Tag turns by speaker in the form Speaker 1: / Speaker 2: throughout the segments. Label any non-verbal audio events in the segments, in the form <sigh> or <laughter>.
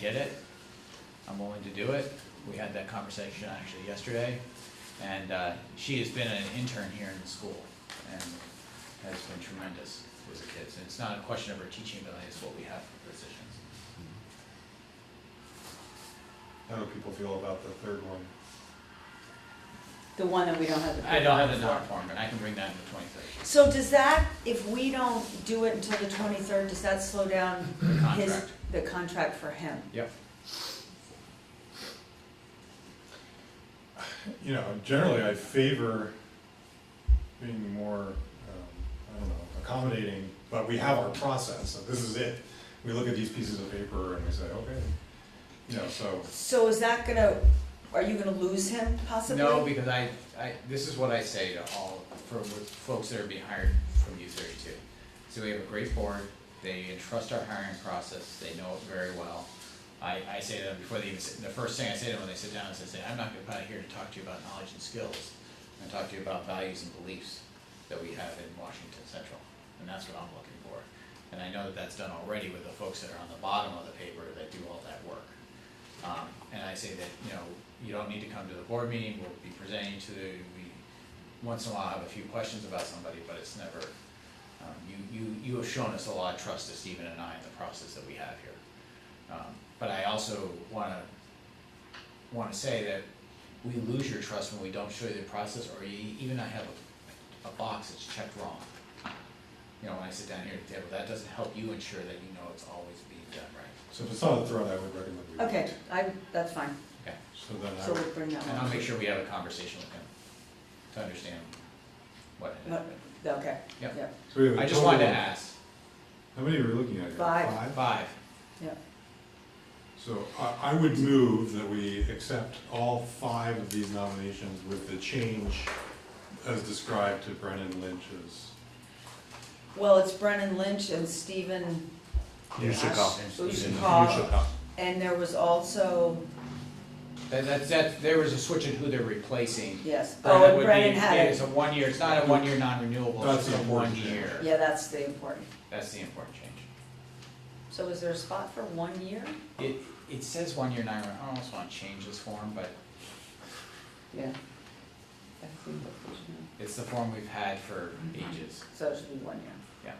Speaker 1: get it, I'm willing to do it. We had that conversation actually yesterday, and uh, she has been an intern here in the school and has been tremendous with the kids. And it's not a question of her teaching ability, it's what we have for positions.
Speaker 2: How do people feel about the third one?
Speaker 3: The one that we don't have the.
Speaker 1: I don't have the non form, but I can bring that in the twenty-third.
Speaker 4: So does that, if we don't do it until the twenty-third, does that slow down his,
Speaker 1: Contract,
Speaker 4: the contract for him?
Speaker 1: yep.
Speaker 2: You know, generally I favor being more, um, I don't know, accommodating, but we have our process, so this is it. We look at these pieces of paper and we say, okay, you know, so,
Speaker 4: So is that gonna, are you gonna lose him possibly?
Speaker 1: No, because I, I, this is what I say to all, for with folks that are being hired from U thirty-two. So we have a great board, they entrust our hiring process, they know it very well. I, I say to them before they even, sit- the first thing I say to them when they sit down is I say, I'm not gonna- probably here to talk to you about knowledge and skills. I'm gonna talk to you about values and beliefs that we have in Washington Central, and that's what I'm looking for. And I know that that's done already with the folks that are on the bottom of the paper that do all that work. Um, and I say that, you know, you don't need to come to the board meeting, we'll be presenting to, the- we, once in a while have a few questions about somebody, but it's never, um, you, you, you have shown us a lot of trust to Stephen and I in the process that we have here. Um, but I also wanna, wanna say that we lose your trust when we don't show you the process, or you even I have a, a box that's checked wrong. You know, when I sit down here at the table, that doesn't help you ensure that you know it's always being done right,
Speaker 2: so if it's not a threat, I would recommend we.
Speaker 4: Okay,
Speaker 2: wait.
Speaker 4: I, that's fine,
Speaker 1: okay?
Speaker 2: So then I
Speaker 4: so
Speaker 2: would
Speaker 4: we'll bring that
Speaker 1: And I'll
Speaker 4: one.
Speaker 1: make sure we have a conversation with him to understand what had
Speaker 4: What-
Speaker 1: happened.
Speaker 4: Okay,
Speaker 1: Yep.
Speaker 4: yeah,
Speaker 2: So we have a
Speaker 1: I just wanted to
Speaker 2: total of-
Speaker 1: ask,
Speaker 2: How many were we looking at? here?
Speaker 4: Five.
Speaker 1: five,
Speaker 4: yeah.
Speaker 2: So I, I would move that we accept all five of these nominations with the change as described to Brennan Lynch's.
Speaker 4: Well, it's Brennan Lynch and Stephen
Speaker 5: Ushakov.
Speaker 4: Ushakov, and there was also,
Speaker 1: that, that's, that, there was a switch in who they're replacing.
Speaker 4: yes,
Speaker 1: Brennan
Speaker 4: oh,
Speaker 1: would
Speaker 4: and
Speaker 1: be-
Speaker 4: Brennan had
Speaker 1: It's
Speaker 4: it.
Speaker 1: a one year, it's not a one year non-renewable, it's
Speaker 2: That's
Speaker 1: just a one
Speaker 2: important, yeah.
Speaker 1: year.
Speaker 4: Yeah, that's the important.
Speaker 1: That's the important change.
Speaker 4: So is there a spot for one year?
Speaker 1: It, it says one year non, I almost wanna change this form, but
Speaker 4: Yeah.
Speaker 1: it's the form we've had for ages,
Speaker 4: So it should be one year.
Speaker 1: yeah.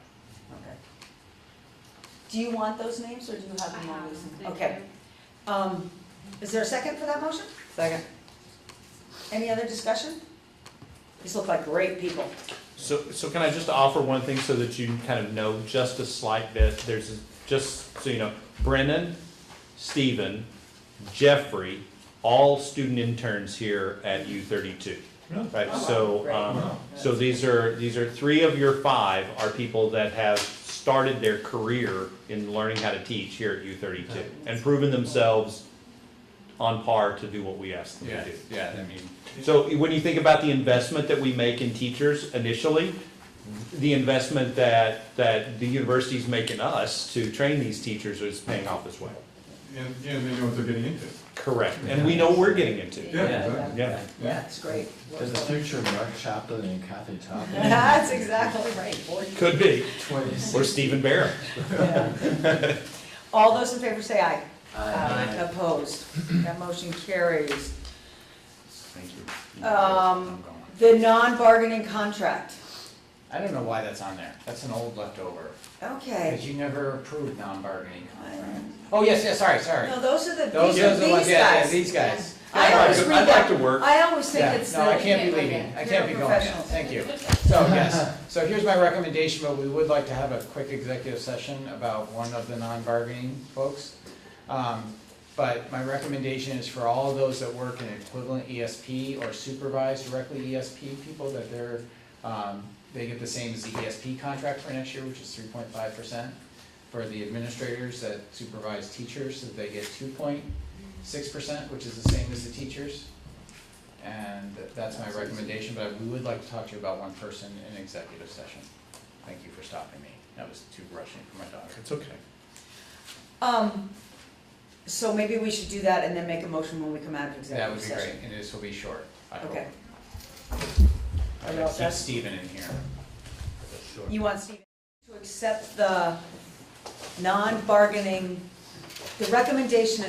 Speaker 4: Okay. Do you want those names, or do you have
Speaker 6: I
Speaker 4: them
Speaker 6: have
Speaker 4: on
Speaker 6: them,
Speaker 4: these?
Speaker 6: thank
Speaker 4: Okay. Um, is there a second for that motion? Second. Any other discussion? These look like great people.
Speaker 5: So, so can I just offer one thing so that you kind of know just a slight bit? There's, a- just so you know, Brennan, Stephen, Jeffrey, all student interns here at U thirty-two.
Speaker 2: Really?
Speaker 5: Right,
Speaker 4: Oh,
Speaker 5: so,
Speaker 4: great.
Speaker 5: um,
Speaker 2: Wow.
Speaker 5: so these are, these are, three of your five are people that have started their career in learning how to teach here at U thirty-two and proven themselves on par to do what we asked them to do.
Speaker 1: Yeah, I mean,
Speaker 5: So when you think about the investment that we make in teachers initially, the investment that, that the universities make in us to train these teachers is paying off as well.
Speaker 2: And, and they know what they're getting into.
Speaker 5: Correct, and we know what we're getting into.
Speaker 2: Yeah, exactly.
Speaker 5: Yeah.
Speaker 4: Yeah, it's great.
Speaker 7: There's a future Mark Chaplin and Kathy Chaplin,
Speaker 4: <laughs> That's exactly right, boy.
Speaker 5: Could be,
Speaker 7: twins.
Speaker 5: or Stephen Barron.
Speaker 7: <laughs>
Speaker 4: Yeah. All those in favor say aye.
Speaker 7: Aye.
Speaker 4: Opposed? That motion carries.
Speaker 1: thank you.
Speaker 4: Um,
Speaker 1: I'm going.
Speaker 4: The non-bargaining contract.
Speaker 1: I don't know why that's on there, that's an old leftover.
Speaker 4: Okay.
Speaker 1: Because you never approved non-bargaining contracts. Oh, yes, yes, sorry, sorry.
Speaker 4: No, those are the,
Speaker 1: Those
Speaker 4: these are
Speaker 1: those are the ones,
Speaker 4: these
Speaker 1: yeah, yeah,
Speaker 4: guys.
Speaker 1: these guys.
Speaker 4: I always
Speaker 5: I'd
Speaker 4: read
Speaker 5: like- I'd
Speaker 4: that.
Speaker 5: like to work.
Speaker 4: I always think
Speaker 1: Yeah,
Speaker 4: it's the.
Speaker 1: no, I can't be
Speaker 6: okay,
Speaker 1: leaving,
Speaker 6: okay.
Speaker 1: I can't be
Speaker 4: You're a
Speaker 1: going, yet.
Speaker 4: professional.
Speaker 1: thank you. So, yes, so here's my recommendation, but we would like to have a quick executive session about one of the non-bargaining folks. Um, But my recommendation is for all of those that work in equivalent ESP or supervise directly ESP people, that they're, um, they get the same as the ESP contract for next year, which is three point five percent. For the administrators that supervise teachers, that they get two point six percent, which is the same as the teachers. And that's my recommendation, but we would like to talk to you about one person in executive session. Thank you for stopping me. That was too rushing for my daughter.
Speaker 5: It's okay.
Speaker 4: Um, so maybe we should do that and then make a motion when we come out of
Speaker 1: That
Speaker 4: executive
Speaker 1: would be
Speaker 4: session.
Speaker 1: great, and this will be short, I hope.
Speaker 4: Okay. Are you
Speaker 1: Okay,
Speaker 4: all
Speaker 1: Keep
Speaker 4: set?
Speaker 1: Steven in here.
Speaker 4: You want Steve to accept the non-bargaining the recommendation